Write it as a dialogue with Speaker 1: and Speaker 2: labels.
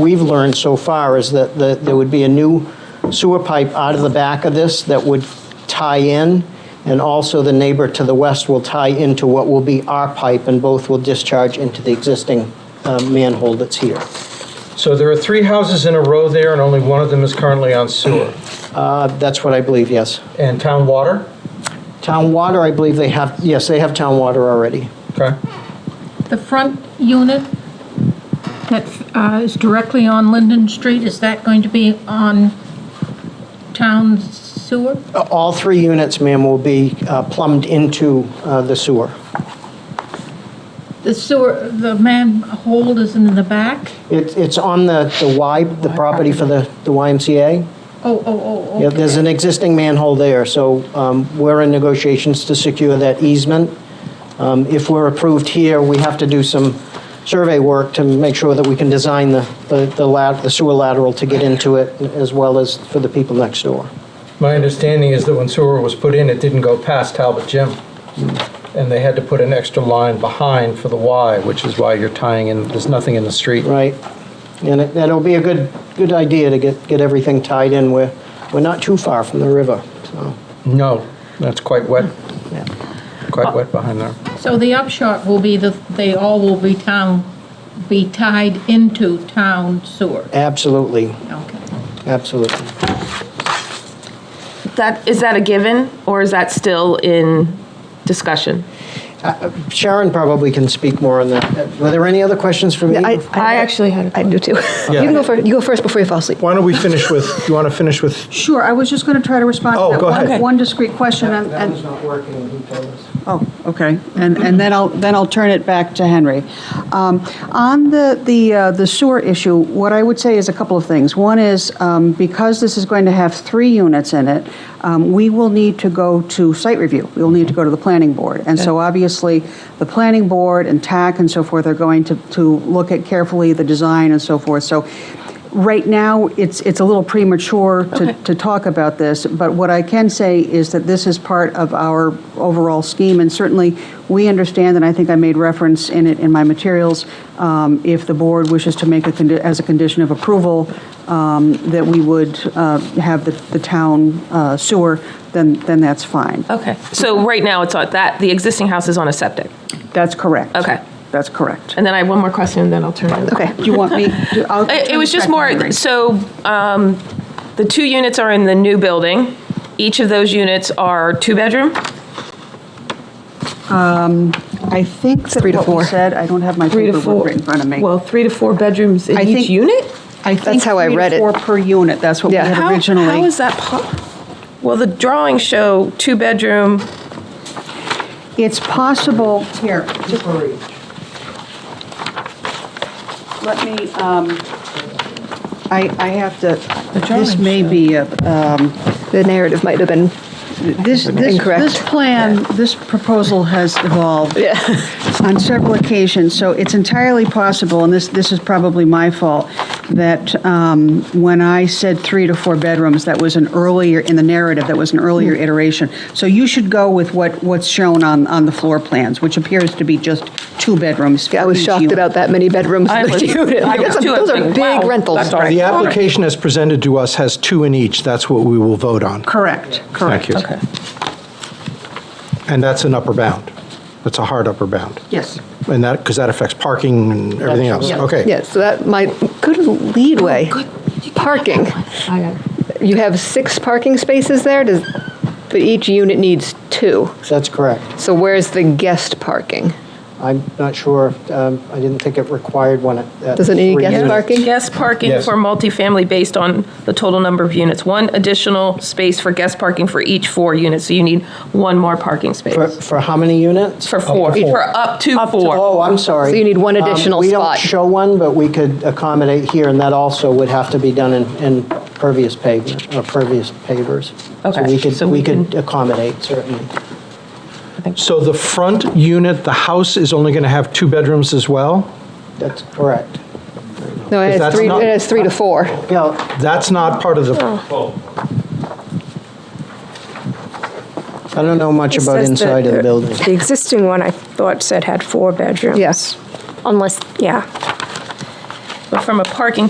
Speaker 1: we've learned so far is that the- there would be a new sewer pipe out of the back of this that would tie in, and also the neighbor to the west will tie into what will be our pipe, and both will discharge into the existing uh, manhole that's here.
Speaker 2: So there are three houses in a row there, and only one of them is currently on sewer.
Speaker 1: Uh, That's what I believe, yes.
Speaker 2: And town water?
Speaker 1: Town water, I believe they have, yes, they have town water already.
Speaker 2: Okay.
Speaker 3: The front unit that uh, is directly on Linden Street, is that going to be on town sewer?
Speaker 1: Uh, All three units, ma'am, will be uh, plumbed into uh, the sewer.
Speaker 3: The sewer, the manhole is in the back?
Speaker 1: It's it's on the the Y, the property for the the YMCA.
Speaker 3: Oh, oh, oh, okay.
Speaker 1: Yeah, there's an existing manhole there, so um, we're in negotiations to secure that easement. Um, If we're approved here, we have to do some survey work to make sure that we can design the the the lat- the sewer lateral to get into it, as well as for the people next door.
Speaker 2: My understanding is that when sewer was put in, it didn't go past Talbot Gym. And they had to put an extra line behind for the Y, which is why you're tying in, there's nothing in the street.
Speaker 1: Right. And it- that'll be a good, good idea to get, get everything tied in. We're, we're not too far from the river, so,
Speaker 2: No, that's quite wet,
Speaker 1: yeah.
Speaker 2: quite wet behind there.
Speaker 3: So the upshot will be that they all will be town, be tied into town sewer?
Speaker 1: Absolutely,
Speaker 3: Okay.
Speaker 1: absolutely.
Speaker 4: That, is that a given, or is that still in discussion?
Speaker 1: Sharon probably can speak more on that. Were there any other questions for me?
Speaker 4: I actually had a
Speaker 5: I do too. You can go first, you go first before you fall asleep.
Speaker 2: Why don't we finish with, you want to finish with
Speaker 6: Sure, I was just going to try to respond
Speaker 2: Oh,
Speaker 6: to that
Speaker 2: go ahead.
Speaker 6: one-
Speaker 2: Okay.
Speaker 6: one discrete question, and,
Speaker 1: That
Speaker 6: and-
Speaker 1: was not working, who told us?
Speaker 6: oh, okay, and, and then I'll, then I'll turn it back to Henry. Um, On the, the uh, the sewer issue, what I would say is a couple of things. One is, um, because this is going to have three units in it, um, we will need to go to site review, we'll need to go to the planning board. And so obviously, the planning board and TAC and so forth are going to, to look at carefully the design and so forth. So Right now, it's, it's a little premature to, to talk about this, but what I can say is that this is part of our overall scheme, and certainly, we understand, and I think I made reference in it in my materials, um, if the board wishes to make a, condi- as a condition of approval, um, that we would uh, have the, the town uh, sewer, then, then that's fine.
Speaker 4: Okay, so right now, it's on that, the existing house is on a septic.
Speaker 6: That's correct.
Speaker 4: Okay.
Speaker 6: That's correct.
Speaker 4: And then I have one more question, and then I'll turn it over.
Speaker 6: Okay, do you want me, to- I'll.
Speaker 4: It it was just
Speaker 6: turn it back to
Speaker 4: more,
Speaker 6: Henry.
Speaker 4: so um, the two units are in the new building. Each of those units are two-bedroom?
Speaker 6: I think that
Speaker 5: Three to
Speaker 6: what we
Speaker 5: four.
Speaker 6: said, I don't have my
Speaker 4: Three to
Speaker 6: paperwork
Speaker 4: four.
Speaker 6: right in front of me.
Speaker 4: Well, three to four bedrooms in
Speaker 6: I
Speaker 4: each
Speaker 6: think-
Speaker 4: unit?
Speaker 6: I think
Speaker 5: That's how I
Speaker 6: three to
Speaker 5: read it.
Speaker 6: Four per unit, that's what we
Speaker 5: Yeah.
Speaker 6: had
Speaker 4: How-
Speaker 6: originally.
Speaker 4: How is that po, well, the drawings show two-bedroom,
Speaker 6: It's possible, here, just let me, um, I, I have to, this may be, a um,
Speaker 5: The narrative might have been,
Speaker 6: this, this,
Speaker 5: Incorrect.
Speaker 6: this plan, this proposal has evolved on several occasions, so it's entirely possible, and this, this is probably my fault, that um, when I said three to four bedrooms, that was an earlier, in the narrative, that was an earlier
Speaker 5: Hmm.
Speaker 6: iteration. So you should go with what, what's shown on, on the floor plans, which appears to be just two bedrooms for
Speaker 5: I was
Speaker 6: each
Speaker 5: shocked
Speaker 6: unit.
Speaker 5: about that many bedrooms
Speaker 4: I
Speaker 5: in the
Speaker 4: was-
Speaker 5: unit.
Speaker 4: I
Speaker 5: Like,
Speaker 4: was
Speaker 5: that's a-
Speaker 4: too, I was
Speaker 5: Those are
Speaker 4: like, wow,
Speaker 5: big rentals.
Speaker 4: that's all-
Speaker 7: The application as presented to us has two in each. That's what we will vote on.
Speaker 6: Correct, correct.
Speaker 7: Thank you. Okay. And that's an upper bound. That's a hard upper bound.
Speaker 6: Yes.
Speaker 7: And that, because that affects parking and everything else. Okay.
Speaker 5: Yeah, so that might, good
Speaker 4: Oh,
Speaker 5: leadway. Parking. You have six parking spaces there, does, but each unit needs two.
Speaker 1: That's correct.
Speaker 5: So where's the guest parking?
Speaker 1: I'm not sure, um, I didn't think it required one at. at
Speaker 5: Does it need
Speaker 1: three
Speaker 5: guest
Speaker 1: units.
Speaker 5: parking?
Speaker 4: guest parking
Speaker 7: Yes.
Speaker 4: for multifamily based on the total number of units. One additional space for guest parking for each four units, so you need one more parking
Speaker 1: For,
Speaker 4: space.
Speaker 1: for how many units?
Speaker 4: For four, for up to four.
Speaker 1: Oh, I'm sorry.
Speaker 5: So you need one
Speaker 1: Um,
Speaker 5: additional
Speaker 1: We don't
Speaker 5: spot.
Speaker 1: show one, but we could accommodate here, and that also would have to be done in, in pervious pavement, or pervious pavers.
Speaker 4: Okay,
Speaker 1: So
Speaker 4: so
Speaker 1: we
Speaker 4: we
Speaker 1: could, we could accommodate, certainly.
Speaker 7: So the front unit, the house is only going to have two bedrooms as well?
Speaker 1: That's correct.
Speaker 5: No, it has
Speaker 7: that's
Speaker 5: three,
Speaker 7: not-
Speaker 5: it has three to four.
Speaker 1: Yeah,
Speaker 7: That's not part of the,
Speaker 1: I don't know much
Speaker 8: It
Speaker 1: about
Speaker 8: says
Speaker 1: inside
Speaker 8: that
Speaker 1: of the building.
Speaker 8: The existing one, I thought said had four bedrooms.
Speaker 5: Yes.
Speaker 8: Unless, yeah.
Speaker 4: But from a parking